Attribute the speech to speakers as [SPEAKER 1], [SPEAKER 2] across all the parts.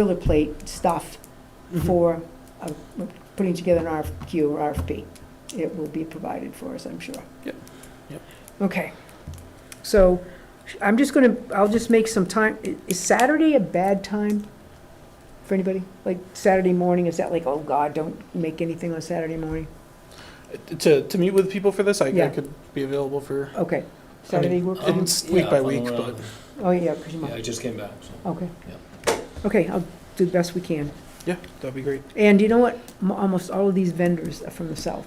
[SPEAKER 1] boilerplate stuff
[SPEAKER 2] Hmm.
[SPEAKER 1] for uh, putting together an RFQ or RFP. It will be provided for us, I'm sure.
[SPEAKER 2] Yep, yep.
[SPEAKER 1] Okay. So I'm just gonna, I'll just make some time. i- Is Saturday a bad time for anybody? Like Saturday morning, is that like, oh God, don't make anything on Saturday morning?
[SPEAKER 2] To, to meet with people for this, I, I
[SPEAKER 1] Yeah.
[SPEAKER 2] could be available for,
[SPEAKER 1] Okay. Saturday work? for you?
[SPEAKER 2] it's week by
[SPEAKER 3] I'm
[SPEAKER 2] week,
[SPEAKER 3] around.
[SPEAKER 2] but-
[SPEAKER 1] Oh, yeah, because you
[SPEAKER 3] Yeah, I
[SPEAKER 1] might,
[SPEAKER 3] just came back, so.
[SPEAKER 1] okay. Okay, I'll do the best we can.
[SPEAKER 2] yeah, that'd be great.
[SPEAKER 1] And you know what? M- Almost all of these vendors are from the south.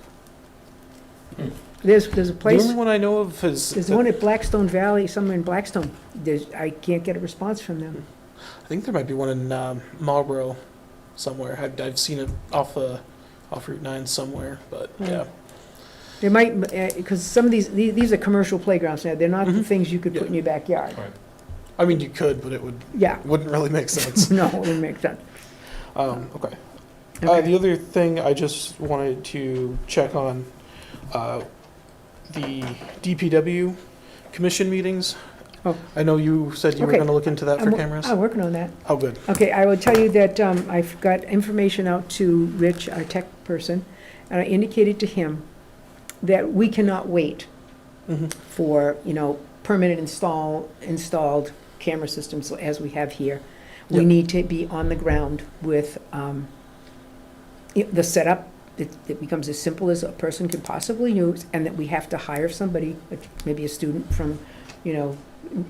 [SPEAKER 3] Hmm.
[SPEAKER 1] There's, there's a
[SPEAKER 2] The
[SPEAKER 1] place,
[SPEAKER 2] only one I know of is,
[SPEAKER 1] there's one at Blackstone Valley, somewhere in Blackstone. There's, I can't get a response from them.
[SPEAKER 2] I think there might be one in um, Marlboro somewhere. I've, I've seen it off, uh, off Route 9 somewhere, but
[SPEAKER 1] Hmm.
[SPEAKER 2] yeah.
[SPEAKER 1] They might, because some of these, the- these are commercial playgrounds now. They're not the
[SPEAKER 2] Mhm.
[SPEAKER 1] things you could put
[SPEAKER 2] Yeah.
[SPEAKER 1] in your backyard.
[SPEAKER 2] I mean, you could, but it would,
[SPEAKER 1] Yeah,
[SPEAKER 2] wouldn't really make sense.
[SPEAKER 1] no, it wouldn't make sense.
[SPEAKER 2] Um, okay. Uh, the
[SPEAKER 1] Okay.
[SPEAKER 2] other thing I just wanted to check on, uh, the DPW commission meetings.
[SPEAKER 1] Oh.
[SPEAKER 2] I know you said you were
[SPEAKER 1] Okay.
[SPEAKER 2] gonna look into that
[SPEAKER 1] I'm
[SPEAKER 2] for
[SPEAKER 1] wo-
[SPEAKER 2] cameras.
[SPEAKER 1] I'm working on that.
[SPEAKER 2] Oh, good.
[SPEAKER 1] Okay, I will tell you that um, I've got information out to Rich, our tech person, and I indicated to him that we cannot wait
[SPEAKER 2] Mhm.
[SPEAKER 1] Mm-hmm. for, you know, permanent install, installed camera systems as we have here. We
[SPEAKER 2] Yep.
[SPEAKER 1] need to be on the ground with um, i- the setup that that becomes as simple as a person can possibly use, and that we have to hire somebody, like maybe a student from, you know,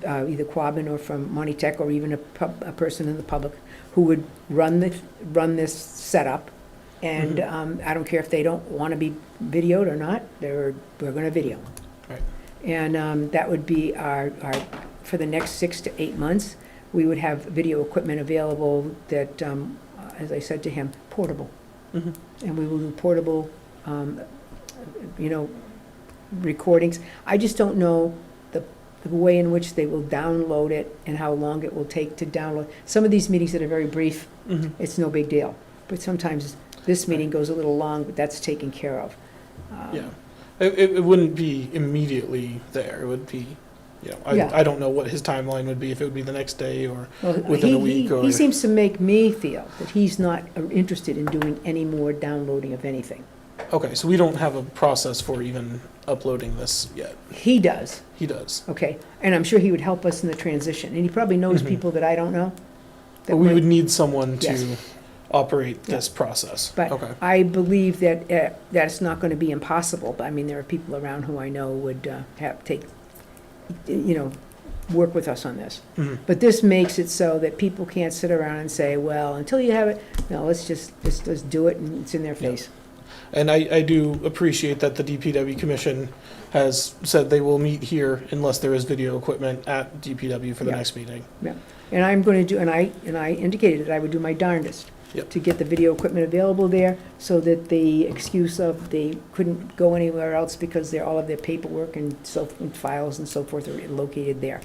[SPEAKER 1] uh, either Quabbin or from Monty Tech, or even a pub, a person in the public, who would run the, run this setup. And
[SPEAKER 2] Mhm.
[SPEAKER 1] um, I don't care if they don't want to be videoed or not, they're, we're going to video.
[SPEAKER 2] Right.
[SPEAKER 1] And um, that would be our, our, for the next six to eight months, we would have video equipment available that, um, as I said to him, portable.
[SPEAKER 2] Mhm.
[SPEAKER 1] And we will do portable, um, you know, recordings. I just don't know the, the way in which they will download it and how long it will take to download. Some of these meetings that are very brief,
[SPEAKER 2] Mhm.
[SPEAKER 1] it's no big deal. But sometimes this meeting goes a little long, but that's taken care of. Um,
[SPEAKER 2] Yeah. It, it, it wouldn't be immediately there. It would be, you know, I,
[SPEAKER 1] Yeah.
[SPEAKER 2] I don't know what his timeline would be, if it would be the next day or,
[SPEAKER 1] Well,
[SPEAKER 2] within a
[SPEAKER 1] he-
[SPEAKER 2] week
[SPEAKER 1] he-
[SPEAKER 2] or-
[SPEAKER 1] He seems to make me feel that he's not uh, interested in doing any more downloading of anything.
[SPEAKER 2] okay, so we don't have a process for even uploading this yet.
[SPEAKER 1] He does,
[SPEAKER 2] He does.
[SPEAKER 1] okay? And I'm sure he would help us in the transition, and he probably knows
[SPEAKER 2] Mhm.
[SPEAKER 1] people that I don't know. that
[SPEAKER 2] But we
[SPEAKER 1] might-
[SPEAKER 2] would need someone to
[SPEAKER 1] Yes.
[SPEAKER 2] operate this process.
[SPEAKER 1] But-
[SPEAKER 2] Okay,
[SPEAKER 1] I believe that, uh, that's not gonna be impossible, but I mean, there are people around who I know would uh, have, take, you know, work with us on this.
[SPEAKER 2] Mhm.
[SPEAKER 1] But this makes it so that people can't sit around and say, well, until you have it, no, let's just, let's, let's do it, and it's in their
[SPEAKER 2] Yeah.
[SPEAKER 1] face.
[SPEAKER 2] And I, I do appreciate that the DPW commission has said they will meet here unless there is video equipment at DPW for the
[SPEAKER 1] Yeah.
[SPEAKER 2] next meeting.
[SPEAKER 1] And I'm going to do, and I, and I indicated that I would do my darndest
[SPEAKER 2] Yep.
[SPEAKER 1] to get the video equipment available there so that the excuse of they couldn't go anywhere else because they're, all of their paperwork and so, and files and so forth are located there.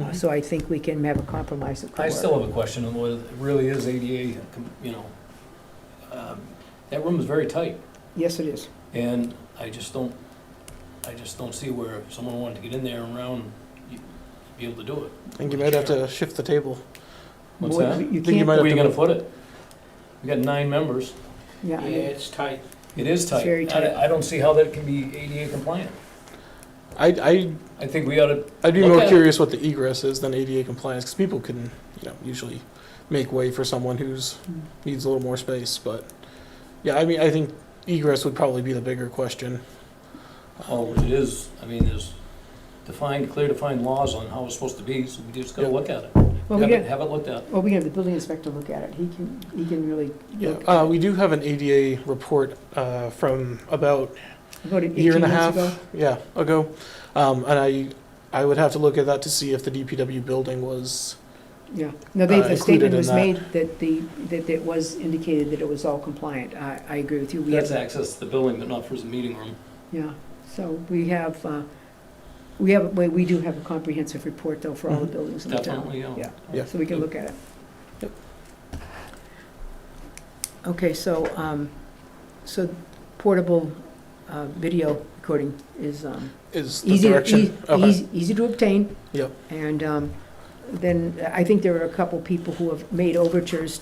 [SPEAKER 1] Uh,
[SPEAKER 2] Mhm.
[SPEAKER 1] So I think we can have a compromise that could
[SPEAKER 3] I
[SPEAKER 1] work.
[SPEAKER 3] still have a question on whether it really is ADA, com- you know, um, that room is very tight,
[SPEAKER 1] Yes, it is.
[SPEAKER 3] and I just don't, I just don't see where if someone wanted to get in there and around, you'd be able to do
[SPEAKER 2] I
[SPEAKER 3] it.
[SPEAKER 2] think Mm-hmm. you might have to shift the table.
[SPEAKER 3] What's
[SPEAKER 1] Well,
[SPEAKER 3] that?
[SPEAKER 1] You
[SPEAKER 2] Think you might
[SPEAKER 1] can't,
[SPEAKER 3] Where
[SPEAKER 2] have
[SPEAKER 3] are you
[SPEAKER 2] to-
[SPEAKER 3] gonna put it? We got nine members,
[SPEAKER 1] yeah, I mean,
[SPEAKER 4] tight.
[SPEAKER 3] it is tight.
[SPEAKER 1] very
[SPEAKER 3] I-
[SPEAKER 1] tight.
[SPEAKER 3] I don't see how that can be ADA compliant.
[SPEAKER 2] I, I,
[SPEAKER 3] I think we ought to,
[SPEAKER 2] I'd be
[SPEAKER 3] Look
[SPEAKER 2] more
[SPEAKER 3] at-
[SPEAKER 2] curious what the egress is than ADA compliance, because people can, you know, usually make way for someone who's,
[SPEAKER 1] Mm.
[SPEAKER 2] needs a little more space, but, yeah, I mean, I think egress would probably be the bigger question.
[SPEAKER 3] oh, it is, I mean, there's defined, clear defined laws on how it's supposed to be, so we just gotta
[SPEAKER 2] Yeah.
[SPEAKER 3] look at it.
[SPEAKER 1] well,
[SPEAKER 3] Have
[SPEAKER 1] we
[SPEAKER 3] it,
[SPEAKER 1] get,
[SPEAKER 3] have it looked at.
[SPEAKER 1] well, we can have the building inspector look at it. He can, he can really
[SPEAKER 2] Yeah,
[SPEAKER 1] look.
[SPEAKER 2] uh, we do have an ADA report, uh, from about
[SPEAKER 1] About eighteen
[SPEAKER 2] year and a half,
[SPEAKER 1] months ago.
[SPEAKER 2] yeah, ago. Um, and I, I would have to look at that to see if the DPW building was.
[SPEAKER 1] Yeah, no, they,
[SPEAKER 2] uh,
[SPEAKER 1] the
[SPEAKER 2] included
[SPEAKER 1] statement
[SPEAKER 2] in
[SPEAKER 1] was
[SPEAKER 2] that.
[SPEAKER 1] made that the, that it was indicated that it was all compliant. I, I agree with you. We
[SPEAKER 3] That's
[SPEAKER 1] have-
[SPEAKER 3] access to the building, but not for the meeting room.
[SPEAKER 1] Yeah, so we have, uh, we have, we we do have a comprehensive report though for all the
[SPEAKER 2] Mhm.
[SPEAKER 1] buildings in the town.
[SPEAKER 3] Mm-hmm. Definitely,
[SPEAKER 1] Yeah.
[SPEAKER 3] yeah.
[SPEAKER 2] Yeah.
[SPEAKER 1] So we can look at it.
[SPEAKER 2] Yep.
[SPEAKER 1] Okay, so, um, so portable, uh, video recording is, um,
[SPEAKER 2] Is the
[SPEAKER 1] easy, to-
[SPEAKER 2] direction?
[SPEAKER 1] ea-
[SPEAKER 2] Okay.
[SPEAKER 1] easy, easy to obtain.
[SPEAKER 2] Yep.
[SPEAKER 1] And um, then I think there are a couple people who have made overtures